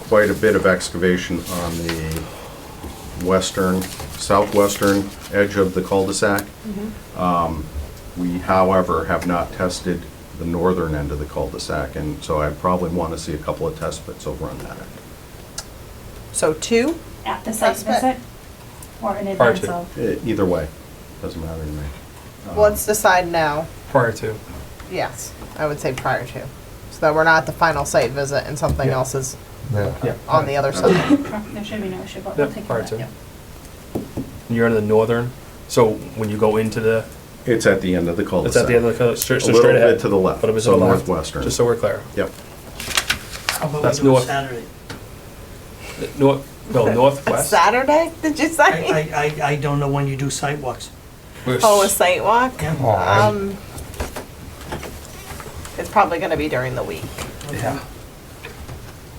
quite a bit of excavation on the western, southwestern edge of the cul-de-sac. Mm-hmm. Um, We, however, have not tested the northern end of the cul-de-sac, and so I probably want to see a couple of test pits over on that end. So two? At the site That's visit? Or in Prior advance to. of? Eh, Either way, doesn't matter to me. Um, Uh-huh. Let's decide now. prior to. Yes, I would say prior to. So that we're not at the final site visit and something Yeah. else is Yeah. Uh, on the other side. There should be no issue, but we'll Yep, take care prior of to. that. You're in the northern, so when you go into the, It's at the end of the it's cul-de-sac. at the end of the, cul- stra- so little straight ahead. bit to the left, But it was so to the left, northwestern. Just so we're clear. Yep. How about That's we do it north. Saturday? The North, no, northwest. Saturday, did you say? I, I, I, I don't know when you do sidewalks. We're Oh, a s- site walk? Yeah. Oh, Um, it's probably gonna be during the week. yeah,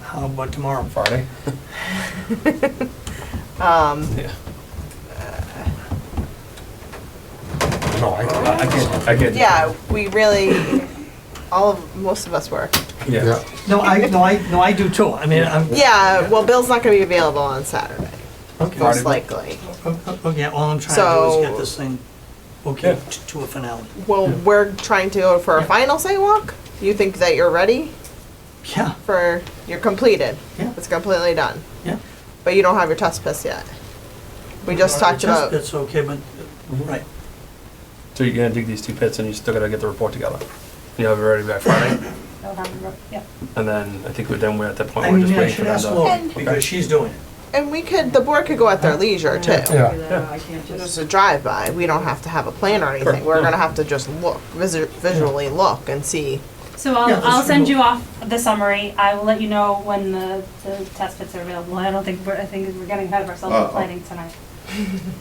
How about tomorrow? Friday. Um, Yeah. No, I, I get, I get. yeah, we really, all of, most of us were. Yeah. yeah, No, I, no, I, no, I do too. I mean, I'm, Yeah, well, Bill's not gonna be available on Saturday, okay, Friday. most likely. okay, all I'm trying to do is So- get this thing, okay, Yeah. t- to a finale. Well, we're trying to go for a final site walk? You think that you're ready Yeah, for, you're completed? Yeah. It's completely done? yeah. But you don't have your test piss yet. We just talked about, That's okay, but, right, So you're gonna dig these two pits and you still gotta get the report together. You have it ready by Friday, They'll have the, re- yeah. and then I think we're then we're at that point, I we're mean, just I waiting for should them ask to. Lori, And- because she's doing it. and we could, the board could go at their leisure too. yeah. I can't Just just, a drive-by, we don't have to have a plan or anything, we're gonna have to just look, visu- visually look and see. So Yeah, I'll, that's I'll send cool. you off the summary. I will let you know when the, the test pits are available. I don't think, we're I think we're getting ahead of ourselves Uh, with uh. planning tonight.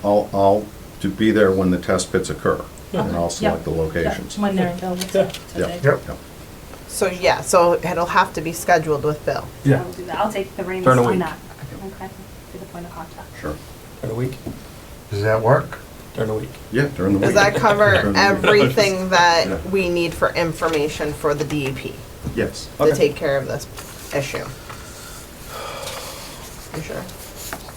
I'll, I'll to be there when the test pits occur, and I'll Yeah. select the Yeah, locations. When they're available to Yeah. today. Yep. Yep. So, yeah, so it'll have to be scheduled with Bill. I Yeah, will do that. I'll take the reins During the on week. that. Okay, be the point of contact. Sure. during the week, Does that work? during the week. Yeah, during the week. Does that cover During the week. everything Yeah. that we need for information for the DEP Yes. to take care of this issue? You sure?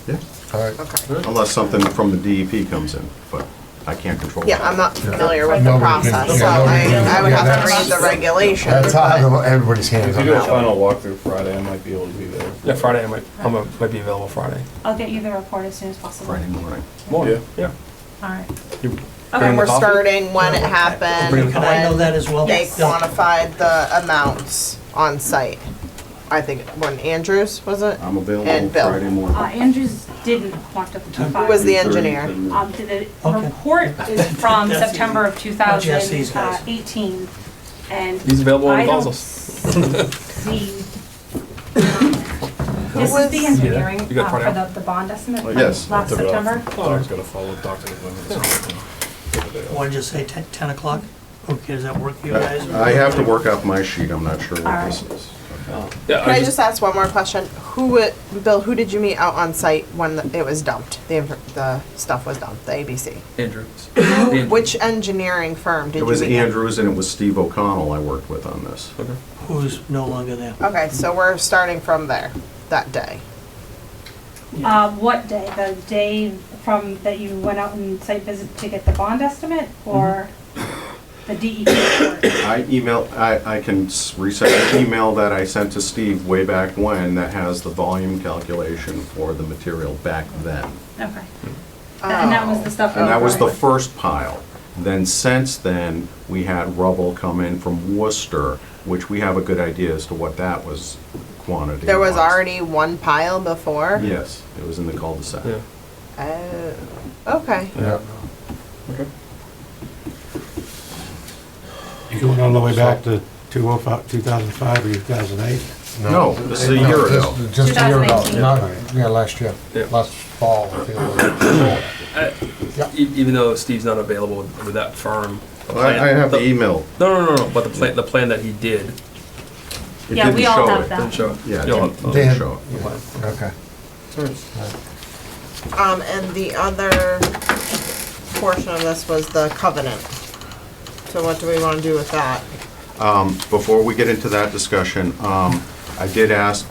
Yeah. All right. Okay. Unless something from the DEP comes in, but I can't control that. Yeah, I'm not familiar with No, the we can- process, so yeah, no, we I, can- I would yeah, have to that's- read the regulations. That's but- how everybody's hands If you on do a that. final walkthrough Friday, I might be able to be there. Yeah, Friday, I might, I'm, a- might be available Friday. I'll get you the report as soon as possible. Friday morning. Morning, yeah. All right. You bringing And the we're coffee? starting when it happened, Bring- Can I know that as well? they Yeah. quantified the amounts on site. I think, when Andrews, was it? I'm available And Bill. Friday Uh, morning. Andrews didn't want to. Who was the engineer? Um, the Okay. report is from Jesse. September of Jesse's guys. 2018, and He's available when I he don't calls us. see. This was- is the engineering You got uh, part for out? the, the bond estimate Oh, from yes. last September. Doc's gotta follow Dr. McGlin's. What'd you say, ten, ten o'clock? Okay, does that work for you guys? I have to work out my sheet, I'm not sure what this is. Yeah, Can I just ask one more question? Who, wa- Bill, who did you meet out on site when it was dumped? The, inf- the stuff was dumped, the ABC? Andrews. Which engineering firm did It you meet? was at? Andrews and it was Steve O'Connell I worked with on this. Okay. Who's no longer there? Okay, so we're starting from there, that day. Uh, what day? The day from that you went out and site visit to get the bond estimate, or the DEP report? I email, I, I can s- resend the email that I sent to Steve way back when that has the volume calculation for the material back then. Okay. And that was the stuff. And that was the over. first pile. Then since then, we had rubble come in from Worcester, which we have a good idea as to what that was quantity. There was already one pile before? Yes, it was in the cul-de-sac. Yeah. Oh, okay. Yeah. Okay. You're going all the way back to 2005, 2005 or 2008? No, this is a year ago. Just- Just a year ago, 2018. not, yeah, last year, Yeah. last fall. I think it E- Even though Steve's not available with with that firm. the Well, I, I plan- have the email. No, no, no, no, but the plan, the plan that he did, It Yeah, we didn't all show have it. that. didn't show. Yeah, it You'll didn't- have- it oh, didn't Dan. show it. the plan. was. Okay. Um, and the other portion of this was the covenant. So what do we want to do with that? Before we get into that discussion, um, I did ask